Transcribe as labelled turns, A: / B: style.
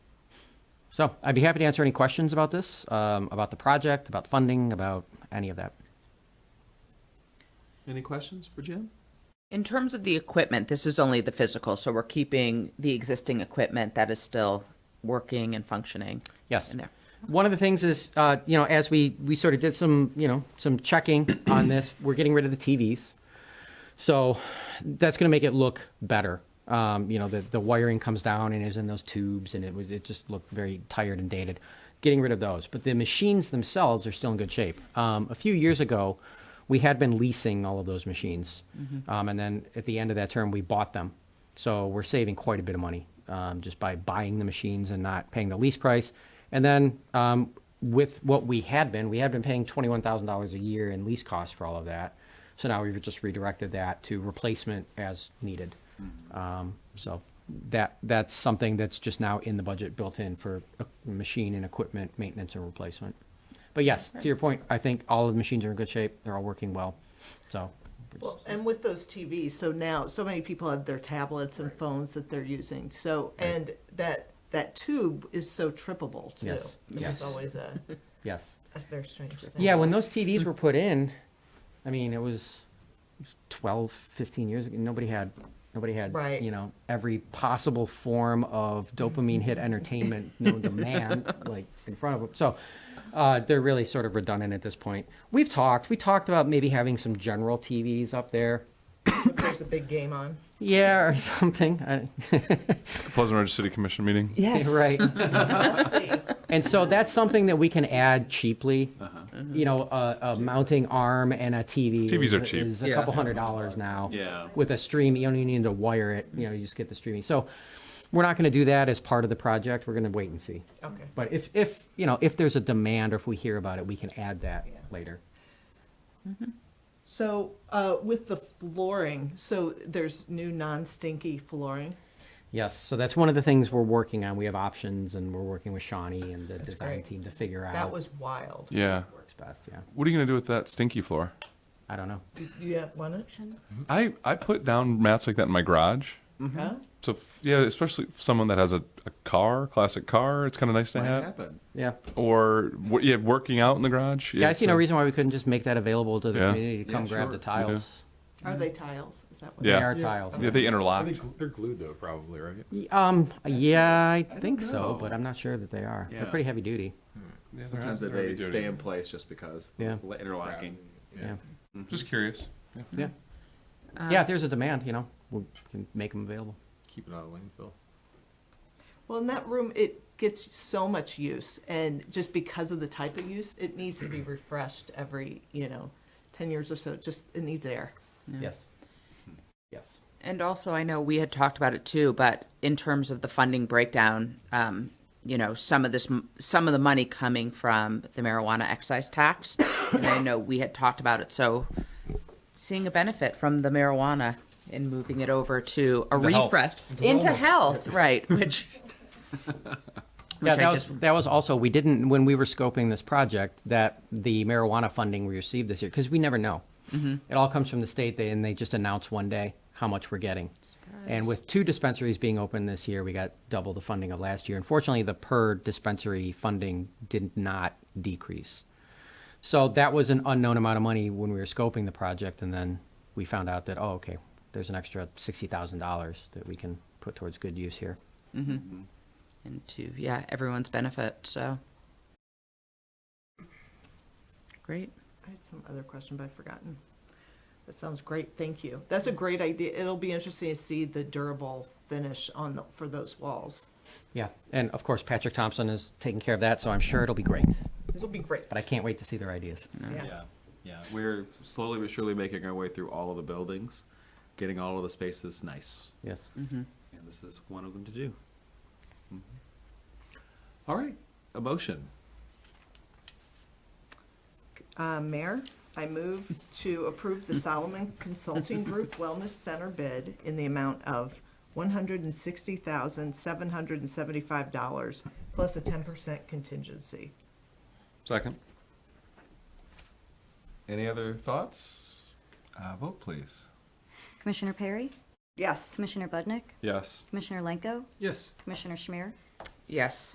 A: So I'd be happy to answer any questions about this, um, about the project, about funding, about any of that.
B: Any questions for Jim?
C: In terms of the equipment, this is only the physical, so we're keeping the existing equipment that is still working and functioning.
A: Yes.
C: in there.
A: One of the things is, uh, you know, as we, we sort of did some, you know, some checking on this, we're getting rid of the TVs. So that's going to make it look better. Um, you know, the, the wiring comes down and is in those tubes and it was, it just looked very tired and dated. Getting rid of those. But the machines themselves are still in good shape. Um, a few years ago, we had been leasing all of those machines.
C: Mm-hmm.
A: Um, and then at the end of that term, we bought them. So we're saving quite a bit of money um, just by buying the machines and not paying the lease price. And then um, with what we had been, we had been paying $21,000 a year in lease costs for all of that. So now we've just redirected that to replacement as needed. Um, So that, that's something that's just now in the budget, built in for uh, machine and equipment maintenance and replacement. But yes, to your point, I think all of the machines are in good shape. They're all working well. So
D: Well, and with those TVs, so now, so many people have their tablets and phones that they're using, so, and that, that tube is so trippable too.
A: Yes, yes.
D: It's always a,
A: yes.
D: a very strange thing.
A: Yeah, when those TVs were put in, I mean, it was it was 12, 15 years ago. Nobody had, nobody had,
D: Right.
A: you know, every possible form of dopamine hit entertainment known to man, like in front of them. So uh, they're really sort of redundant at this point. We've talked, we talked about maybe having some general TVs up there.
D: If There's a big game on.
A: Yeah, or something. I,
E: Pleasant Ridge City Commission meeting.
A: right.
D: Let's see.
A: And so that's something that we can add cheaply.
E: Uh-huh.
A: You know, a, a mounting arm and a TV.
E: TVs
A: is-
E: are cheap.
A: Is a couple hundred dollars now.
B: Yeah.
A: With a stream, you don't even need to wire it. You know, you just get the streaming. So we're not going to do that as part of the project. We're going to wait and see.
D: Okay.
A: But if, if you know, if there's a demand or if we hear about it, we can add that
D: Yeah.
A: later.
D: So, uh, with the flooring, so there's new non-stinky flooring.
A: Yes. So that's one of the things we're working on. We have options, and we're working with Shawnee and the design
D: great.
A: team to figure out
D: That was wild.
E: Yeah.
A: what works best. Yeah.
E: What are you gonna do with that stinky floor?
A: I don't know.
D: Yeah, want
E: I I put down mats like that in my garage.
A: Mm-hmm.
D: it? Huh?
E: So f- yeah, especially if someone that has a, a car, classic car, it's kind of nice to
B: Might
E: have.
B: happen.
A: Yeah.
E: Or w- yeah, working out in the garage.
A: Yeah, I see no
E: so-
A: reason why we couldn't just make that available to the
E: Yeah.
A: community to
B: Yeah,
A: come grab
B: sure.
A: the tiles.
D: Are they tiles? Is that what?
E: Yeah.
A: They are tiles.
E: Yeah, they interlock.
B: they're glued though, probably, right?
A: Y- Um, yeah, I think
B: don't
A: so,
B: know.
A: but I'm not sure that they are. They're
B: Yeah.
A: pretty heavy duty.
E: Yeah, they're
B: Sometimes
E: heavy
B: they
E: duty.
B: stay in place just because
A: Yeah.
B: la- interlocking.
A: Yeah,
E: Just curious.
A: yeah.
C: Um,
A: Yeah, if there's a demand, you know, we can make them available.
B: Keep it out of landfill.
D: Well, in that room, it gets so much use, and just because of the type of use, it needs to be refreshed every, you know, ten years or so, It just, it needs air.
A: Yes. Yes.
C: And also, I know we had talked about it too, but in terms of the funding breakdown, um, you know, some of this, some of the money coming from the marijuana excise tax, and I know we had talked about it. So, seeing a benefit from the marijuana and moving it over to a
E: Into health.
C: refresh into health, right? Which,
A: Yeah,
C: which
A: that
C: I
A: was,
C: just
A: that was also, we didn't, when we were scoping this project, that the marijuana funding we received this year, because we never know.
C: Mm-hmm.
A: It all comes from the state, they- and they just announce one day how much we're getting. And with two dispensaries being open this year, we got double the funding of last year. Unfortunately, the per dispensary funding did not decrease. So that was an unknown amount of money when we were scoping the project, and then we found out that, oh, okay, there's an extra sixty thousand dollars that we can put towards good use here.
C: into Mm-hmm. yeah everyone's benefit. So, great.
D: I had some other question, but I've forgotten. That sounds great, thank you. That's a great idea. It'll be interesting to see the durable finish on, the for those walls.
A: Yeah, and of course Patrick Thompson is taking care of that, so I'm sure it'll be great.
D: It'll be great.
A: But I can't wait to see their ideas.
D: Yeah.
B: Yeah, yeah. We're slowly but surely making our way through all of the buildings, getting all of the spaces nice.
A: Yes.
B: And this is one of them to do. Mhm. All right, a motion.
D: Uh, Mayor, I move to approve the Solomon Consulting Group Wellness Center bid in the amount of one hundred and sixty thousand, seven hundred and seventy-five dollars, plus a ten percent contingency.
E: Second.
B: Any other thoughts? Uh, vote please.
F: Commissioner Perry,
D: Yes,
F: Commissioner Budnick,
E: Yes.
F: Commissioner Lenko,
B: Yes.
F: Commissioner Schmier,
C: Yes.